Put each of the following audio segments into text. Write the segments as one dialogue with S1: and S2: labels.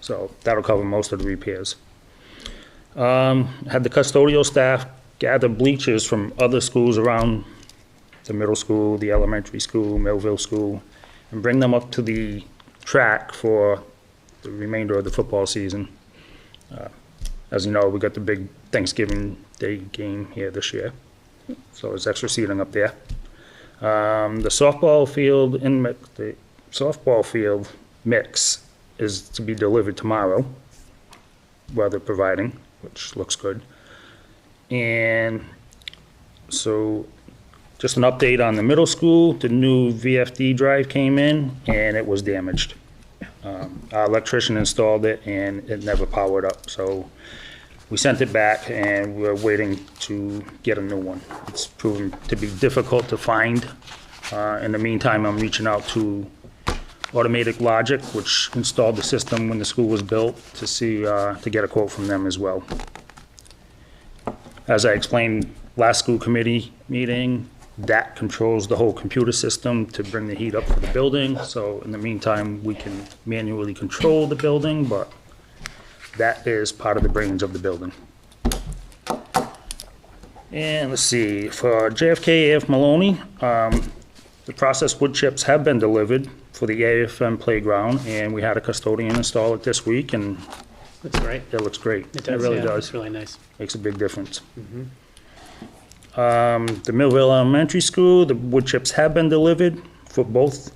S1: So that'll cover most of the repairs. Um, Had the custodial staff gather bleachers from other schools around the middle school, the elementary school, Millville School, and bring them up to the track for the remainder of the football season. Uh, As you know, we got the big Thanksgiving Day game here this year, so there's extra seating up there. Um, the softball field in, mi- the softball field mix is to be delivered tomorrow, weather providing, which looks good. And so just an update on the middle school, the new VFD drive came in and it was damaged. Um, Our electrician installed it and it never powered up, so we sent it back and we're waiting to get a new one. It's proven to be difficult to find. Uh, In the meantime, I'm reaching out to Automatic Logic, which installed the system when the school was built, to see, uh, to get a quote from them as well. As I explained last school committee meeting, that controls the whole computer system to bring the heat up for the building. So in the meantime, we can manually control the building, but that is part of the brains of the building. And let's see, for JFK AF Maloney, um, the processed wood chips have been delivered for the AFM playground, and we had a custodian install it this week, and
S2: That's right.
S1: it looks great. It
S2: yeah,
S1: really does
S2: It's really nice.
S1: makes a big difference. Um, The Millville Elementary School, the wood chips have been delivered for both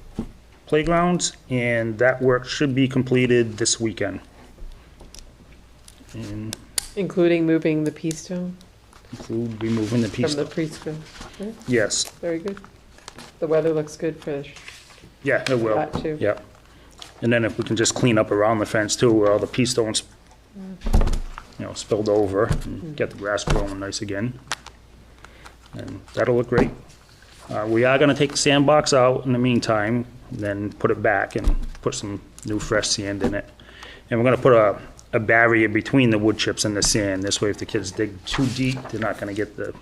S1: playgrounds, and that work should be completed this weekend. And
S3: Including moving the pea stone
S1: we'll be moving the
S3: from
S1: piece,
S3: the preschool.
S1: yes,
S3: Very good. The weather looks good for
S1: yeah, it will.
S3: that too.
S1: Yep. And then if we can just clean up around the fence too, where all the pea stones, you know, spilled over, and get the grass growing nice again. And that'll look great. Uh, we are gonna take the sandbox out in the meantime, then put it back and put some new fresh sand in it. And we're gonna put a, a barrier between the wood chips and the sand, this way if the kids dig too deep, they're not gonna get the,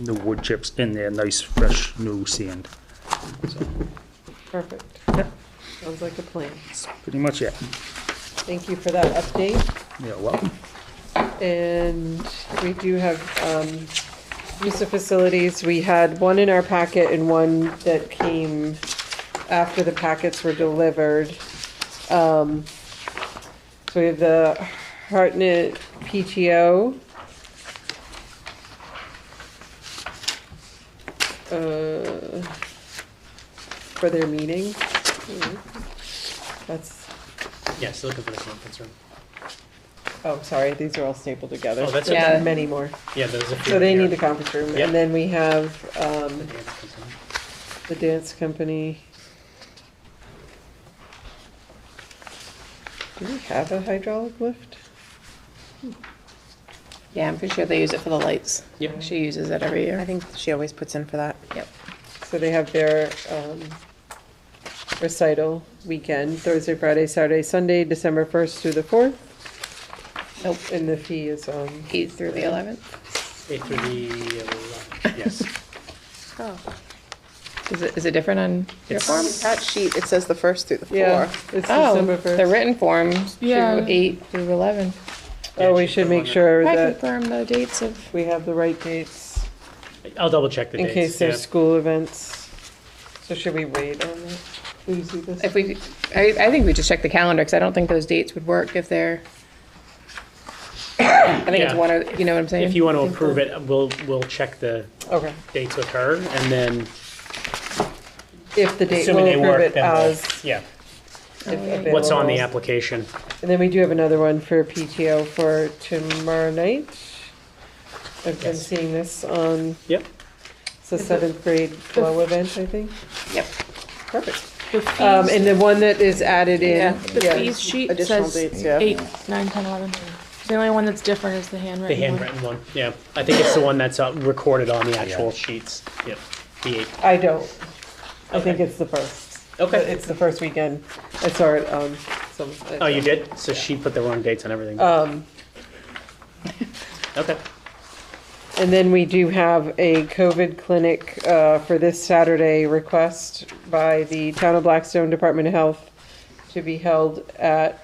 S1: the wood chips in there, nice, fresh, new sand.
S3: Perfect.
S1: Yep.
S3: Sounds like a plan.
S1: That's pretty much it.
S3: Thank you for that update.
S1: Yeah, welcome.
S3: And we do have um, use of facilities. We had one in our packet and one that came after the packets were delivered. Um, So we have the Hartnett PTO. uh, For their meeting.
S2: Hmm.
S3: That's,
S2: Yes, looking for the conference room.
S3: oh, sorry, these are all stapled together.
S2: Oh, that's
S3: There's
S4: okay.
S3: Many more.
S2: Yeah, there's a few.
S3: So they
S2: here.
S3: need the conference room,
S2: Yep.
S3: and then we have, um,
S2: The dance conference room.
S3: the dance company. Do we have a hydraulic lift?
S4: Yeah, I'm pretty sure they use it for the lights.
S2: Yep.
S4: She uses it every
S5: I
S4: year.
S5: think she always puts in for that.
S4: Yep.
S3: So they have their, um, recital weekend, Thursday, Friday, Saturday, Sunday, December first through the fourth,
S4: Nope.
S3: and the fee is, um,
S4: Eight through the eleventh.
S2: Eight through the, eleven. yes.
S4: Oh. Is it, is it different on your
S2: It's-
S4: form?
S5: That sheet, it says the first through the
S3: yeah,
S5: fourth.
S3: it's
S4: Oh,
S3: December
S4: the
S3: first.
S4: written form,
S5: Yeah.
S4: through eight through eleven.
S3: Oh, we should make sure
S4: I
S3: that
S4: confirm the dates of,
S3: we have the right dates.
S2: I'll double check the
S3: In
S2: dates.
S3: case there's
S2: yeah.
S3: school events. So should we wait on that? Will you see this?
S4: if we, I, I think we just check the calendar, because I don't think those dates would work if they're, I think it's
S2: Yeah.
S4: one or, you know what I'm saying?
S2: If you want to approve it, we'll, we'll check the
S3: Okay.
S2: dates with her and then
S3: If the date,
S2: assuming they
S3: we'll approve
S2: work,
S3: it
S2: then we'll,
S3: as.
S2: yeah.
S3: if available.
S2: What's on the application?
S3: And then we do have another one for PTO for tomorrow night. I've been
S2: Yes.
S3: seeing this on,
S2: Yep.
S3: it's the seventh grade flow event, I think.
S4: Yep.
S3: Perfect. Um, and the one that is added in,
S6: The
S3: yeah,
S6: fees sheet
S5: Additional
S6: says
S5: dates, yeah.
S6: eight, nine, ten, eleven. The only one that's different is the
S2: The
S6: handwritten one.
S2: handwritten one, yeah. I think it's the one that's uh, recorded on the actual sheets. Yep. The eight.
S3: I don't. I think
S2: Okay.
S3: it's the first.
S2: Okay.
S3: It's the first weekend. I saw it on some.
S2: Oh, you did? So she put the wrong dates on everything.
S3: Um,
S2: Okay.
S3: And then we do have a COVID clinic uh, for this Saturday request by the Town of Blackstone Department of Health to be held at